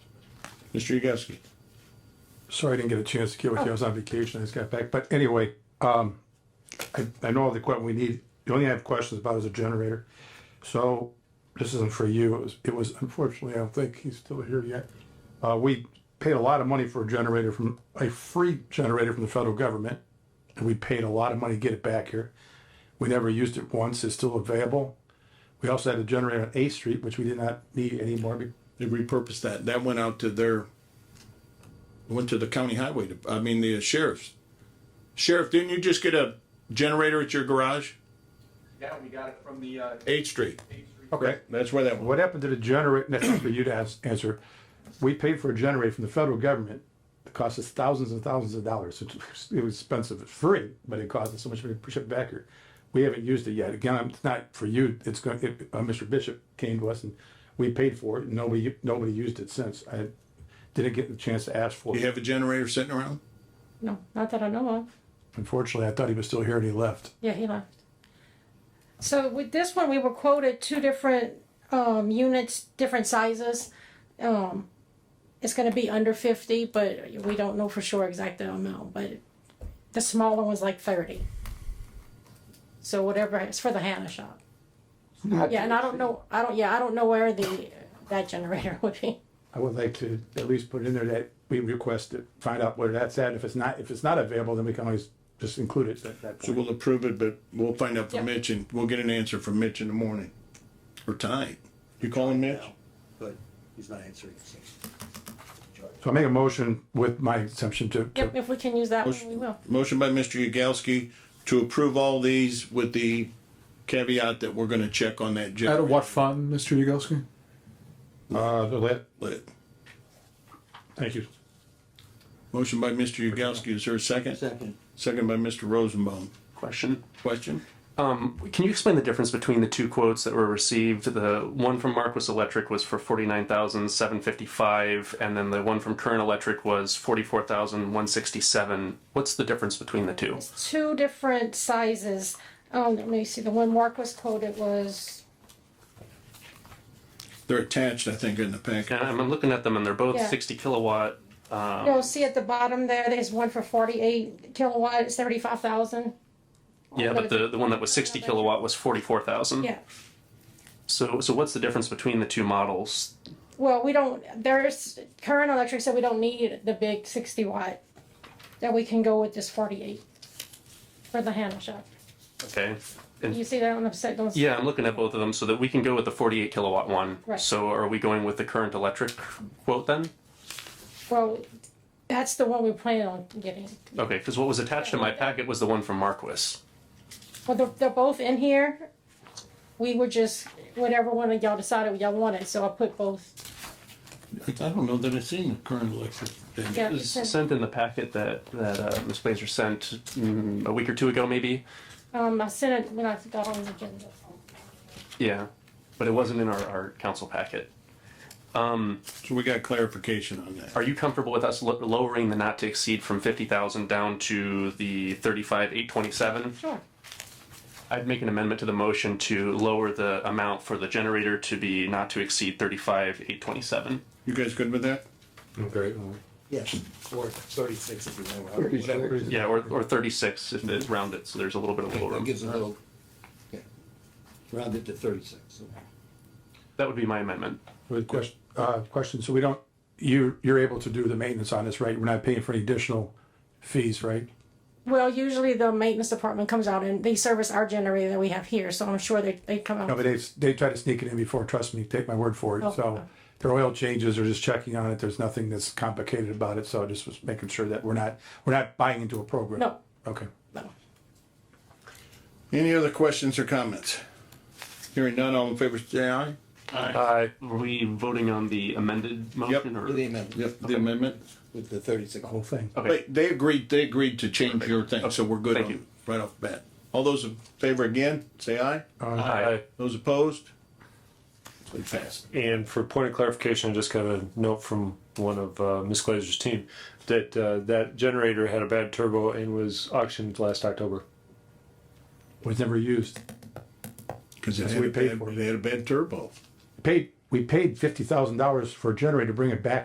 Mr. Yagowski. Sorry I didn't get a chance to get with you. I was on vacation. I just got back. But anyway, um, I, I know all the equipment we need. The only thing I have questions about is a generator. So this isn't for you. It was, it was unfortunately, I don't think he's still here yet. Uh, we paid a lot of money for a generator from, a free generator from the federal government. And we paid a lot of money to get it back here. We never used it once. It's still available. We also had a generator on Eighth Street, which we did not need anymore. be- They repurposed that. That went out to their, went to the county highway, dep- I mean, the sheriff's. Sheriff, didn't you just get a generator at your garage? Yeah, we got it from the, uh, Eighth Street. Eighth Street. Okay. That's where that went. What happened to the generator, that's for you to ans- answer. We paid for a generator from the federal government. It cost us thousands and thousands of dollars. It was- it was expensive, it's free, but it cost us so much money to push it back here. We haven't used it yet. Again, I'm- it's not for you, it's going, it, uh, Mr. Bishop came to us and we paid for it. and Nobody, nobody used it since. I didn't get the chance to ask for You it. have a generator sitting around? No, not that I know of. Unfortunately, I thought he was still here and he left. Yeah, he left. So with this one, we were quoted two different um, units, different sizes. Um, it's going to be under 50, but we don't know for sure exact amount. But the smaller one's like 30. So whatever, it's for the Hannah shop. Yeah, and I don't know, I don't, yeah, I don't know where the that generator would be. I would like to at least put in there that we requested, find out where that's at. If it's not, if it's not available, then we can always just include it at that point. So we'll approve it, but we'll find out Yeah. from Mitch and we'll get an answer from Mitch in the morning or tonight. You calling Mitch? but he's not answering. so. So I make a motion with my exemption to, to- Yep, if we can use that one, we will. Motion by Mr. Yagowski to approve all these with the caveat that we're gonna check on that Out generator. of what fund, Mr. Yagowski? uh, the lit. Thank you. Motion by Mr. Yagowski, is there a second? Second, Second by Mr. Rosenbaum. question. Question? Can you explain the difference between the two quotes that were received? The one from Marquis Electric was for forty nine thousand seven fifty five, and then the one from Current Electric was forty four thousand one sixty seven. What's the difference between the two? two different sizes. Um, let me see, the one Mark was quoted was, They're attached, I think, in the packet. And I'm I'm looking at them, and they're both Yeah. sixty kilowatt. you'll see at the bottom there, there's one for forty-eight kilowatt, it's thirty-five thousand. Yeah, but the, the one that was sixty kilowatt was forty four thousand. Yeah, So so what's the difference between the two models? well, we don't, there's, current electric said we don't need the big sixty watt, that we can go with this forty-eight for the handle shop. Okay. You see that on the set, don't? Yeah, I'm looking at both of them so that we can go with the 48 kilowatt one. Right. So are we going with the current electric quote then? Well, that's the one we plan on getting. Okay, because what was attached to my packet was the one from Marquis. Well, they're, they're both in here. We were just, whatever one of y'all decided y'all wanted, so I put both. I don't know that I've seen the current electric. Yeah, It it was says, sent in the packet that, that uh, Ms. Blazer sent mm, a week or two ago, maybe. um, I sent it when I got on the agenda. Yeah, but it wasn't in our, our council packet. So we got clarification on that. Are you comfortable with us lo- lowering the not to exceed from 50,000 down to the 35,827? Sure. I'd make an amendment to the motion to lower the amount for the generator to be not to exceed 35,827. You guys good with that? Oh, yes, or thirty-six if you want, whatever. Yeah, or, or 36 if it rounded, so there's a little bit of wiggle That room. gives another, yeah, round it to thirty-six, so. That would be my amendment. With question, uh, question, so we don't, you, you're able to do the maintenance on this, right? We're not paying for any additional fees, right? Well, usually the maintenance department comes out and they service our generator that we have here, so I'm sure they, they come No, out. but they, they tried to sneak it in before, trust me, take my word for Oh. it. So their oil changes are just checking on it. There's nothing that's complicated about it. So I just was making sure that we're not, we're not buying into a program. No. Okay. Any other questions or comments? Hearing none, all in favor, say aye. Uh, were we voting on the amended motion or? With the amendment, Yep, the amendment. with the thirty-six. Whole thing. Okay, Wait, they agreed, they agreed to change your thing, so we're good Thank on, you. right off the bat. All those in favor again, say aye. Aye. Those opposed? It passed. And for point of clarification, I just got a note from one of uh, Ms. Glazer's team that uh, that generator had a bad turbo and was auctioned last October. Was never used. Cause it That's had what a we paid bad, for. it had a bad turbo. Paid, we paid fifty thousand dollars for a generator to bring it back